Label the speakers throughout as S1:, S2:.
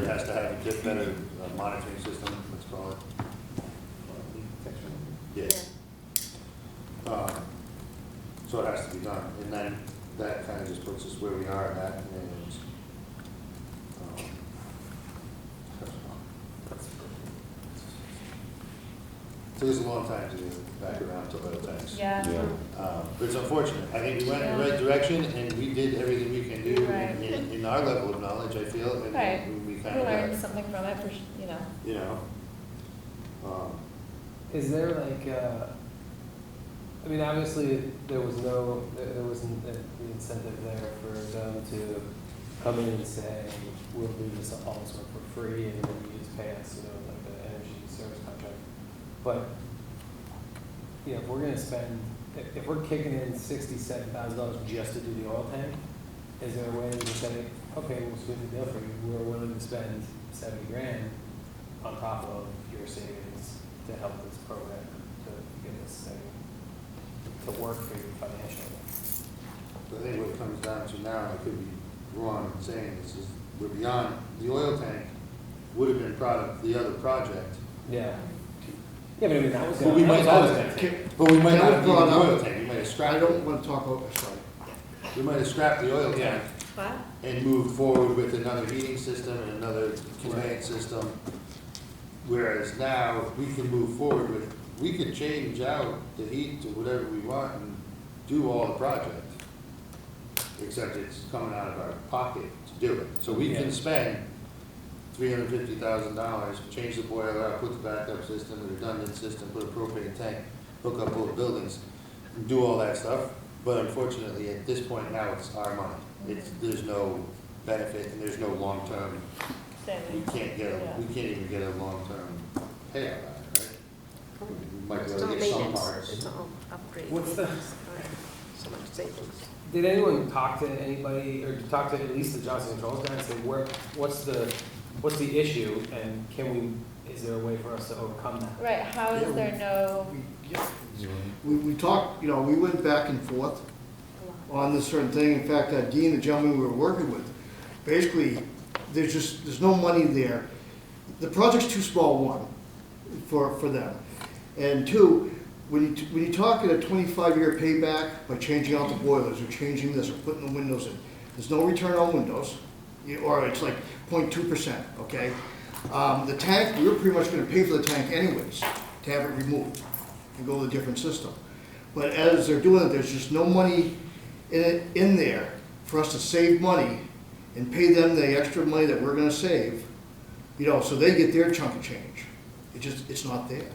S1: has to have a bit better uh, monitoring system, let's call it. Yes. Uh, So it has to be done, and then that kind of just puts us where we are in that, and, um, Took us a long time to get back around to oil tanks.
S2: Yeah.
S3: Yeah.
S1: Um, But it's unfortunate. I think we went in the right direction and we did everything we can do
S2: Right.
S1: in- in, in our level of knowledge, I feel, and
S2: Right.
S1: we
S2: We
S1: kind of
S2: learned
S1: got,
S2: something from it, for, s- you know.
S1: you know. um,
S4: Is there like, uh, I mean, obviously, there was no, there there wasn't the the incentive there for them to come in and say, we'll do this all this work for free and then you just pay us, you know, like the energy service contract. But, you know, if we're gonna spend, if, if we're kicking in sixty-seven thousand dollars just to do the oil tank, is there a way to say, okay, we'll split the deal for you, we're willing to spend seventy grand on top of your savings to help this program, to get this thing to work for you financially.
S1: I think what it comes down to now, I could be wrong in saying this, is we're beyond, the oil tank would have been product, the other project.
S4: Yeah. Yeah, but I mean, that was.
S1: But we might not,
S4: It
S1: but we might
S5: Can I
S1: not have gone
S5: follow
S1: oil
S5: up?
S1: tank, we might have
S5: I
S1: scrapped,
S5: don't
S1: it.
S5: want to talk over, sorry.
S1: we might have scrapped the oil tank
S2: Wow.
S1: and move forward with another heating system and another conveyance system. Whereas now, we can move forward with, we could change out the heat to whatever we want and do all the project. Except it's coming out of our pocket to do it. So we
S4: Yeah.
S1: can spend three hundred fifty thousand dollars, change the boiler out, put the backup system, the redundant system, put a propane tank, hook up all the buildings, do all that stuff, but unfortunately, at this point now, it's our money. It's, there's no benefit, and there's no long-term, we
S2: Saving.
S1: can't get, a- we can't even get a long-term payout out of it, right? We Might be
S6: It's
S1: able
S6: all
S1: to get some
S6: maintenance, it's
S1: parts.
S6: all upgrades.
S4: What's the-
S6: So much savings.
S4: Did anyone talk to anybody, or talk to at least the Johnson Controls guy and say, where, what's the, what's the issue, and can we, is there a way for us to overcome that?
S2: Right, how is there no,
S5: We- yeah, We, we talked, you know, we went back and forth on this certain thing. In fact, uh, Dean, the gentleman we were working with, basically, there's just, there's no money there. The project's too small, one, for, for them. And two, when you, when you talk at a twenty-five year payback by changing out the boilers or changing this or putting the windows in, there's no return on windows, you- or it's like 0.2 percent, okay? Um, the tank, we were pretty much gonna pay for the tank anyways, to have it removed and go to a different system. But as they're doing it, there's just no money in it, in there for us to save money and pay them the extra money that we're gonna save, you know, so they get their chunk of change. It just, it's not there.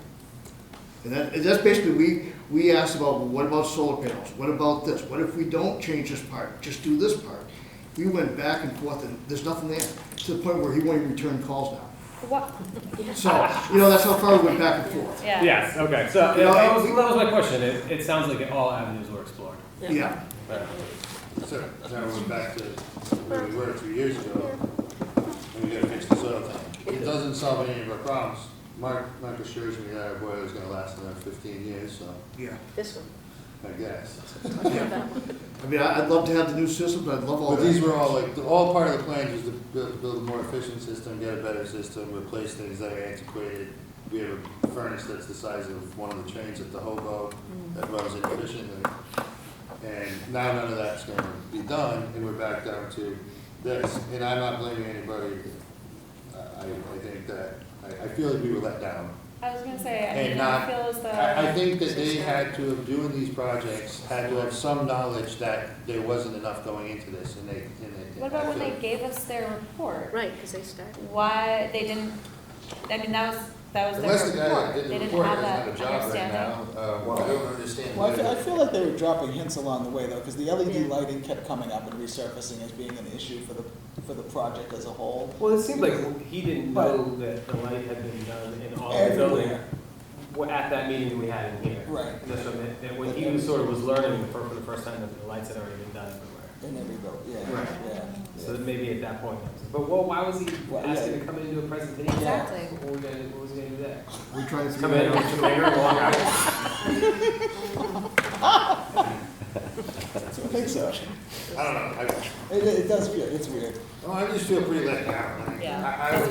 S5: And that, and that's basically, we, we asked about, well, what about solar panels? What about this? What if we don't change this part, just do this part? We went back and forth and there's nothing there, to the point where he won't even return calls now.
S2: what,
S5: So, you know, that's how far we went back and forth.
S2: yeah.
S4: Yes, okay, so,
S5: You know,
S4: that was,
S5: we-
S4: that was my question, it, it sounds like all avenues were explored.
S5: Yeah,
S1: So, now we're back to where we were two years ago, and we gotta fix the soil thing. It doesn't solve any of our problems. Mark, Mark assures me that our boiler's gonna last another fifteen years, so,
S5: yeah.
S6: This one.
S1: I guess.
S5: I mean, I- I'd love to have the new system, but I'd love all
S1: But
S5: that.
S1: these were all like, the- all part of the plan was to build, build a more efficient system, get a better system, replace things that are antiquated. We have a furnace that's the size of one of the trains at the Hobo
S2: Mm.
S1: that runs inefficiently. And now none of that's gonna be done, and we're back down to this. And I'm not blaming anybody. I, I think that, I, I feel that we were let down.
S2: I was gonna say, I
S1: And
S2: mean, I
S1: not-
S2: feel as though.
S1: I, I think that they had to have, doing these projects, had to have some knowledge that there wasn't enough going into this, and they, and they.
S2: What about
S1: I
S2: when they
S1: feel-
S2: gave us their report?
S6: Right, because they started.
S2: Why, they didn't, I mean, that was, that was
S1: Unless the
S2: their
S1: guy that
S2: report.
S1: did
S2: They
S1: the
S2: didn't
S1: report
S2: have
S1: doesn't
S2: that
S1: have a job right
S2: understanding.
S1: now, uh, I don't understand.
S7: Well, I feel, I
S1: whether-
S7: feel like they were dropping hints along the way though, because the LED
S6: Yeah.
S7: lighting kept coming up and resurfacing as being an issue for the, for the project as a whole.
S4: Well, it seemed like he didn't know that the light had been done in all the buildings
S7: Everywhere.
S4: wa- at that meeting that we had in here.
S7: Right.
S4: And that's what I meant, that when he was sort of was learning for, for the first time that the lights had already been done everywhere.
S7: In every building,
S4: Right.
S7: yeah, yeah.
S4: So that maybe at that point, but well, why was he
S7: Well, yeah.
S4: asking to come in and do a presentation?
S2: Exactly.
S4: What were we gonna, what was he gonna do there?
S5: We're trying to.
S4: Come in with your finger and walk out?
S7: I think so.
S1: I don't know, I,
S7: It, it does feel, it's weird.
S1: oh, I just feel pretty let down, like,
S2: Yeah.
S1: I, I was